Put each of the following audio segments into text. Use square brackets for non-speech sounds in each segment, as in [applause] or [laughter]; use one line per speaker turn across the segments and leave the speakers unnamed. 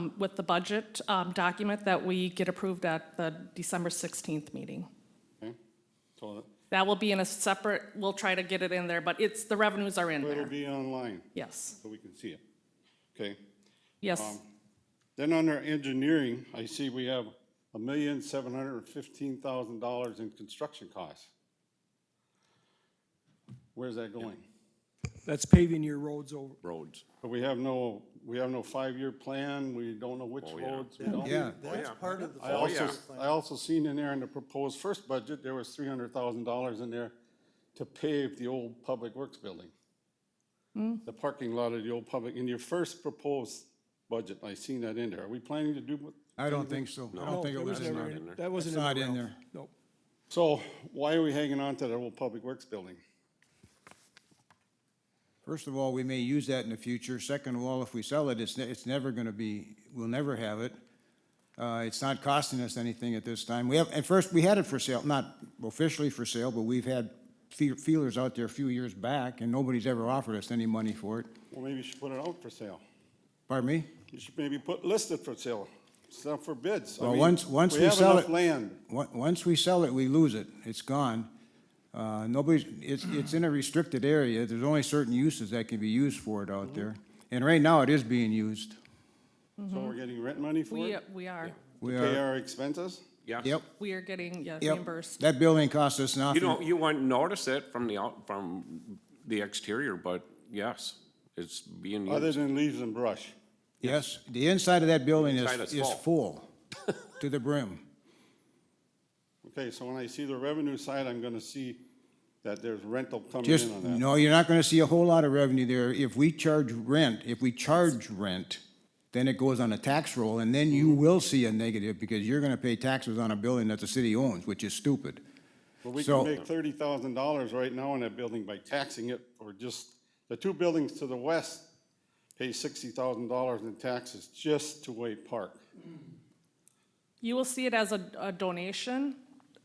um, with the budget um, document that we get approved at the December 16th meeting.
Okay. So
That will be in a separate, we'll try to get it in there, but it's, the revenues are in
it'll
there.
be online,
Yes,
so we can see it. Okay.
yes.
Um, Then under engineering, I see we have a million, seven hundred and fifteen thousand dollars in construction costs. Where's that going?
That's paving your roads over.
roads.
But we have no, we have no five-year plan, we don't know which roads. we don't-
Yeah. That's part of the.
I also, I also seen in there in the proposed first budget, there was three hundred thousand dollars in there to pave the old Public Works building.
Hmm.
The parking lot of the old public, in your first proposed budget, I seen that in there. Are we planning to do, what-
I don't think so. I don't think it
that
was in
never
there.
in- That wasn't in
That's
there.
not in
Ralph.
there.
Nope.
so why are we hanging on to that old Public Works building?
First of all, we may use that in the future. Second of all, if we sell it, it's, ne- it's never gonna be, we'll never have it. Uh, it's not costing us anything at this time. We have, at first, we had it for sale, not officially for sale, but we've had fe- feelers out there a few years back, and nobody's ever offered us any money for it.
Well, maybe you should put it out for sale.
Pardon me?
You should maybe put listed for sale, It's not for bids. I
Well,
mean,
once- once we
have
sell
enough
it-
Land.
Once, once we sell it, we lose it. It's gone. Uh, nobody's, it's, it's in a restricted area. There's only certain uses that can be used for it
Mm-hmm.
out there. And right now, it is being used.
So we're getting rent money for
Mm-hmm. We,
it?
we are,
We
Pay
are,
our expenses?
Yeah.
yep,
we are getting yeah,
yep.
reimbursed.
That building cost us
You
nothing.
don't, you wouldn't notice it from the out, from the exterior, but yes, it's being
Other
used.
than leaves and brush.
Yes, the inside of that building
Inside
is,
is
is full
[laughs]
to the brim.
Okay, so when I see the revenue side, I'm gonna see that there's rental coming
Just,
in on that.
no, you're not gonna see a whole lot of revenue there. If we charge rent, if we charge rent, then it goes on a tax roll, and then you will see a negative, because you're gonna pay taxes on a building that the city owns, which is stupid.
But we
so-
can make thirty thousand dollars right now on that building by taxing it, or just, the two buildings to the west pay sixty thousand dollars in taxes just to Wade Park.
You will see it as a, a donation.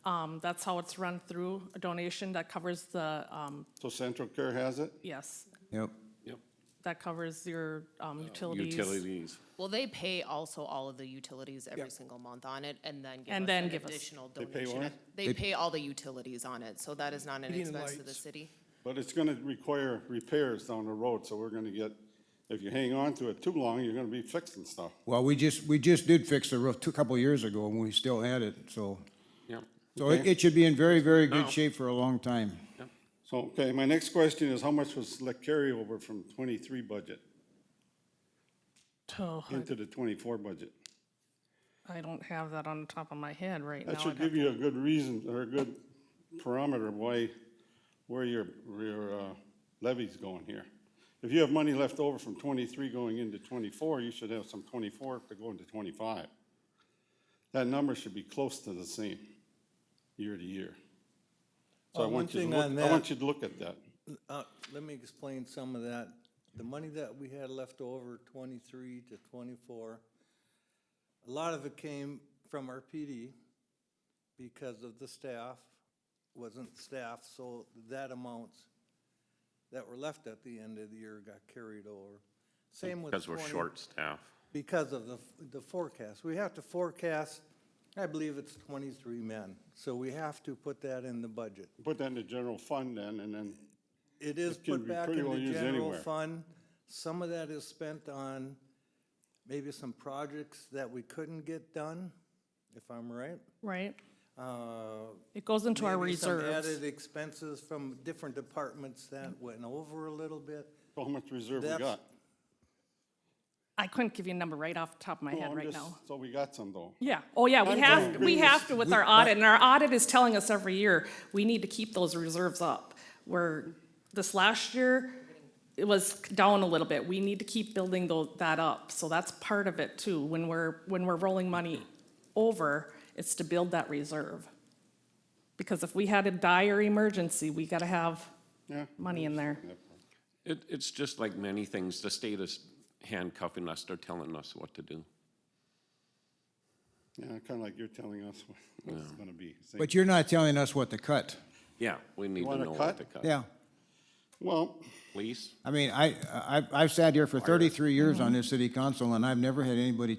Um, that's how it's run through, a donation that covers the, um,
So Central Care has it?
yes,
Yep,
Yep.
that covers your, um, utilities.
Utilities.
Well, they pay also all of the utilities every single month on it and then give
And
us
then
an
give us-
additional
They
donation.
pay what?
if- They pay all the utilities on it, so that is not an
Heating and
expense to the
lights.
city.
But it's gonna require repairs down the road, so we're gonna get, if you hang on to it too long, you're gonna be fixing stuff.
well, we just, we just did fix the roof two, a couple years ago, when we still had it, so.
Yep.
So it, it should be in very, very good shape for a long time.
So, okay, my next question is how much was the carryover from twenty-three budget
Oh, I-
into the twenty-four budget?
I don't have that on the top of my head right now.
That
I'd
should
have
give you a good reason, or a good parameter of why, where your, your uh, levy's going here. If you have money left over from twenty-three going into twenty-four, you should have some twenty-four to go into twenty-five. That number should be close to the same, year to year. So I
Uh, one
want you to
thing on
look, I
that-
want you to look at that.
Uh, Let me explain some of that. The money that we had left over, twenty-three to twenty-four, a lot of it came from our PD because of the staff, wasn't staff, so that amounts that were left at the end of the year got carried over. Same with
Because we're
20
short staff.
because of the, the forecast. We have to forecast, I believe it's twenty-three men, so we have to put that in the budget.
Put that in the general fund then, and then,
It is
It can
put
be
back
pretty
in
well
the
used
general
anywhere.
fund. Some of that is spent on maybe some projects that we couldn't get done, if I'm right.
Right?
Uh,
It goes into our
maybe some
reserves.
Added expenses from different departments that went over a little bit.
so how much reserve we
That's-
got?
I couldn't give you a number right off the top of my
No,
head
Oh, I'm
right
just-
now.
So we got some though.
Yeah, oh yeah, we
I'm
have,
going
we
with-
have
[laughs]
to with our audit, and our audit is telling us every year, we need to keep those reserves up. Where this last year, it was down a little bit, we need to keep building tho- that up, so that's part of it too. When we're, when we're rolling money over, it's to build that reserve. Because if we had a dire emergency, we gotta have
Yeah.
money in there.
It, it's just like many things, the state is handcuffing us, they're telling us what to do.
Yeah, kind of like you're telling us [laughs] what it's gonna be. Same
But you're not telling us what to cut.
Yeah, we need to
wanna
know
cut?
what to cut.
Yeah.
Well,
Please?
Mm-hmm. I mean, I, I, I've sat here for thirty-three years on this city council, and I've never had anybody